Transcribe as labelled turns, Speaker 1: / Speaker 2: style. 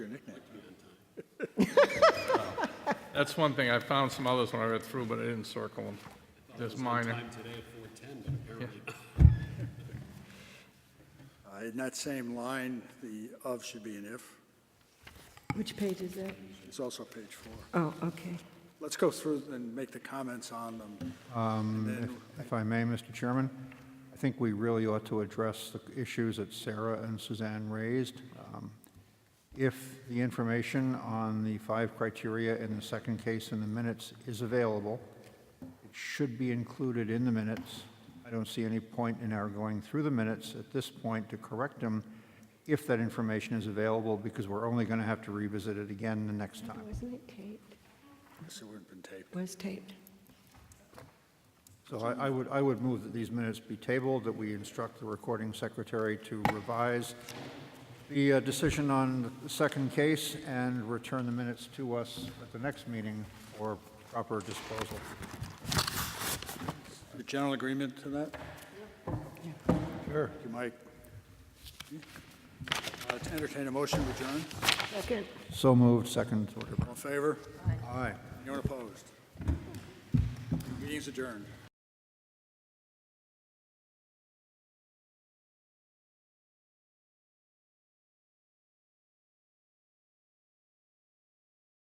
Speaker 1: That's one thing. I found some others when I read through, but I didn't circle them. Just minor.
Speaker 2: Time today at four ten, but apparently,
Speaker 3: Uh, In that same line, the of should be an if.
Speaker 4: Which page is that?
Speaker 3: It's also page four.
Speaker 4: Oh, okay.
Speaker 3: Let's go through and make the comments on them. And then
Speaker 5: Um, If I may, Mr. Chairman, I think we really ought to address the issues that Sarah and Suzanne raised. Um, If the information on the five criteria in the second case in the minutes is available, it should be included in the minutes. I don't see any point in our going through the minutes at this point to correct them if that information is available, because we're only going to have to revisit it again the next time.
Speaker 4: Wasn't it taped?
Speaker 3: Yes, it would have been taped.
Speaker 4: Was taped.
Speaker 5: So I I would, I would move that these minutes be tabled, that we instruct the recording secretary to revise the uh, decision on the second case and return the minutes to us at the next meeting for proper disposal.
Speaker 3: The general agreement to that? Sure. Thank you, Mike. Uh, To entertain a motion to adjourn,
Speaker 4: Second.
Speaker 5: So moved, second order.
Speaker 3: all in favor?
Speaker 5: Aye.
Speaker 3: Anyone opposed? Meeting's adjourned.